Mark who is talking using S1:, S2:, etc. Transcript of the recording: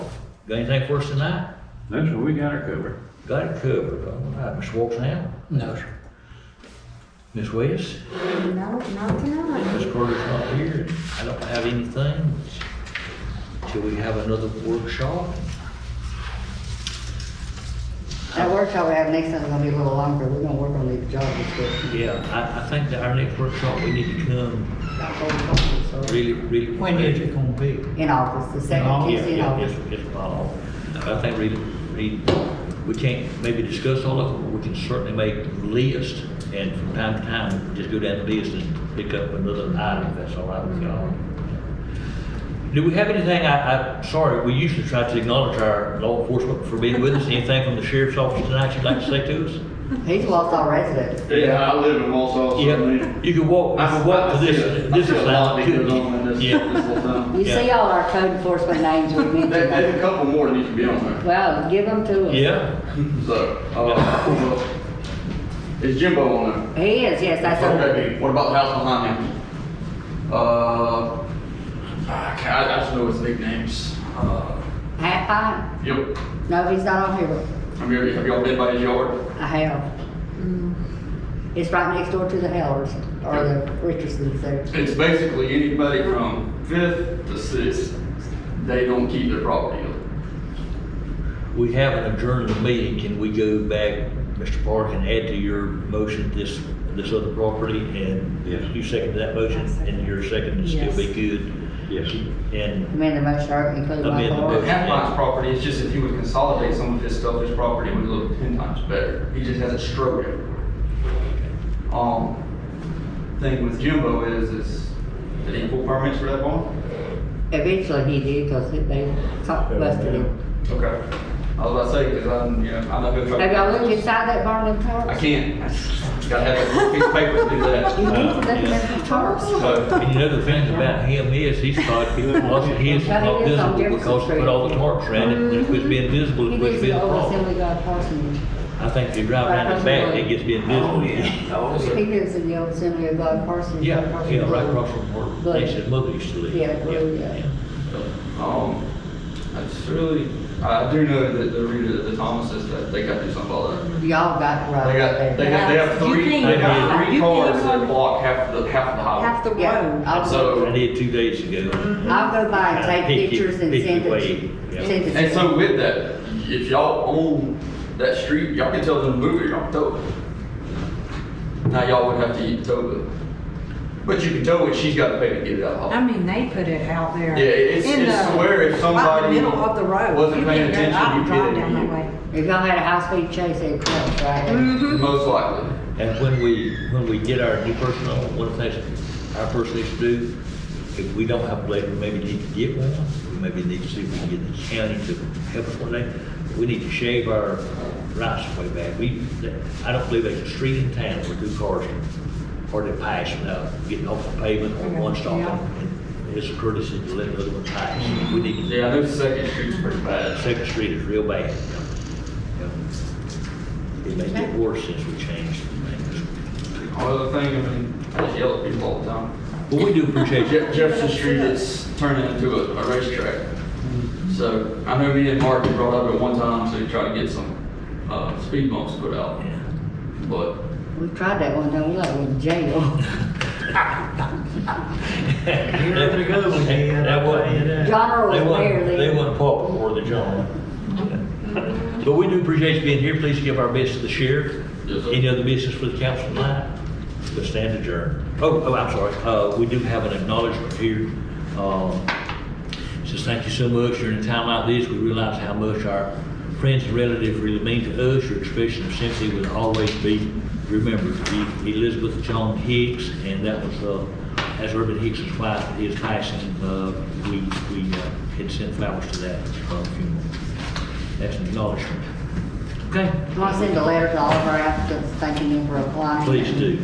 S1: Got anything for us tonight?
S2: No, sir, we got her covered.
S1: Got it covered. All right, Ms. Walksnail,
S3: No, sir.
S1: Ms. West,
S4: No, not tonight.
S1: Ms. Carter's not here. I don't have anything. Till we have another workshop?
S4: That workshop we have next time is gonna be a little longer. We're gonna work on these job descriptions.
S1: Yeah, I, I think that our next workshop, we need to come really, really.
S3: When is it gonna be?
S4: In August, the second
S1: Oh, Yeah,
S4: Tuesday in
S1: yeah, yes,
S4: August.
S1: yes, well, I think really, we, we can't maybe discuss all of it, but we can certainly make a list and from time to time, just go down the list and pick up another item, if that's all right with y'all. Do we have anything, I, I, sorry, we usually try to acknowledge our law enforcement for being with us. Anything from the sheriff's office tonight you'd like to say to us?
S4: He's lost all residue.
S5: Yeah, I live in Walsall, so I
S1: Yeah,
S5: mean.
S1: you can walk, you can walk to this, this
S5: I see a lot that goes on in
S1: is.
S5: this,
S1: Yeah,
S5: this little town.
S4: You
S1: Yeah.
S4: see all our code enforcement names we
S5: There- There's a
S4: mentioned.
S5: couple more that need to be on there,
S4: Well, give them to us.
S1: yeah.
S5: so, uh, well, is Jimbo on there?
S4: He is, yes, that's our,
S5: Okay, what about the house behind him? Uh, I ca- I just know his big names. Uh,
S4: half pint.
S5: Yep,
S4: No, he's not on here.
S5: have you, have y'all been by his yard?
S4: I have. It's right next door to the Hellers or the Richardson's there.
S5: It's basically anybody from fifth to sixth, they don't keep their property up.
S1: We haven't adjourned the meeting, can we go back, Mr. Park, and add to your motion this, this other property? And
S2: Yes.
S1: you second that motion, and your second is still be good?
S2: Yes.
S1: And,
S4: Amend the motion, or include my
S1: Amend the
S4: part.
S1: motion.
S5: Halfline's property is just if he would consolidate some of his stuff, his property would look ten times better. He just has a stroke everywhere. Um, thing with Jimbo is, is, did he pull permits for that barn?
S4: Eventually he did, cause it- they talked busted him.
S5: Okay. I was about to say, cause I'm, you know, I'm not gonna try.
S4: Have y'all looked inside that barn and
S5: I
S4: tarps?
S5: can't. Gotta have a piece of paper to do that.
S4: You looked
S1: Uh,
S4: at the tarps?
S5: So,
S1: and you know, the thing about him is, he's thought he lost his, not visible because he put all the tarps around it, and if it's being visible, it
S4: Mm-hmm. He
S1: would
S4: lives
S1: be
S4: in
S1: a
S4: the old
S1: problem.
S4: Assembly God parsonage.
S1: I think if you drive around the back, it gets being visible. Oh, Yeah,
S4: He lives in the old Assembly of God parsonage.
S1: yeah, yeah, right across from where
S4: But-
S1: his mother used to live.
S4: Yeah, well, yeah.
S5: um, that's really, I do know that the reader, the Thomases, that they gotta do something about that.
S4: Y'all got it
S5: They
S4: right
S5: got, they
S4: there.
S5: have, they have
S6: You
S5: three,
S6: can't
S5: they have
S6: drive.
S5: three
S6: You can't
S5: cars that
S6: drive.
S5: block half of the, half of the
S6: half
S5: highway.
S6: the
S4: Yeah,
S6: road.
S4: I'll,
S5: So,
S1: I did two days
S4: Mm-hmm.
S1: ago.
S4: I'll go by and
S1: Pick your-
S4: take pictures and
S1: pick your
S4: send it,
S1: way, yeah.
S4: to- send it.
S5: and
S4: to
S5: so with that, if y'all own that street, y'all can tell them to move it, y'all can tow it. Now y'all would have to eat the tow bill. But you can tow it, she's gotta pay to get it out. of the
S6: I
S5: highway.
S6: mean, they put it out there.
S5: Yeah, it's,
S6: in
S5: it's
S6: the-
S5: where if
S6: Right in
S5: somebody
S6: the middle of the road.
S5: wasn't paying attention,
S6: I
S5: you'd get
S6: drive
S5: it.
S6: down that
S5: you-
S6: way.
S4: If y'all had a high-speed chase, it'd crash right
S1: Mm.
S6: Mm-hmm.
S4: there.
S5: Most likely.
S1: And when we, when we get our new personnel, one of the things our person needs to do, if we don't have a blade, we maybe need to get one. We maybe need to see if we can get the county to help us one day. We need to shave our rights way back. We, I don't believe there's a street in town where two cars are to pass without getting off the pavement or one stopping. And It's a courtesy to let the other one pass. We need to,
S5: Yeah, I know Second Street's pretty bad.
S1: Second Street is real bad. you know. It may get worse since we changed things.
S5: Another thing, I mean, I just yell at people all the time.
S1: But we do appreciate you.
S5: Je- Jefferson Street is turning into a, a racetrack. So I know me and Mark had brought up at one time to try to get some, uh, speed bumps put out, but
S4: We tried that one time, we like went to jail.
S1: Here we go again. That wasn't.
S4: John Earl was
S1: they wasn't-
S4: there then.
S1: They wasn't popular, were they, John? But we do appreciate you being here. Please give our best to the sheriff.
S5: Yes, sir.
S1: Any other business for the council tonight? The stand adjourned. Oh, oh, I'm sorry. Uh, we do have an acknowledgement here. Um, Says, thank you so much. During a time like this, we realize how much our friends and relatives really mean to us. Your expression of sympathy will always be remembered. E- Elizabeth John Hicks, and that was, uh, as Urban Hicks's wife, his passing, uh, we, we uh, had sent flowers to that uh, funeral. That's an acknowledgement. Okay,
S4: I want to send a letter to all of our applicants thanking them for applying.
S1: please do.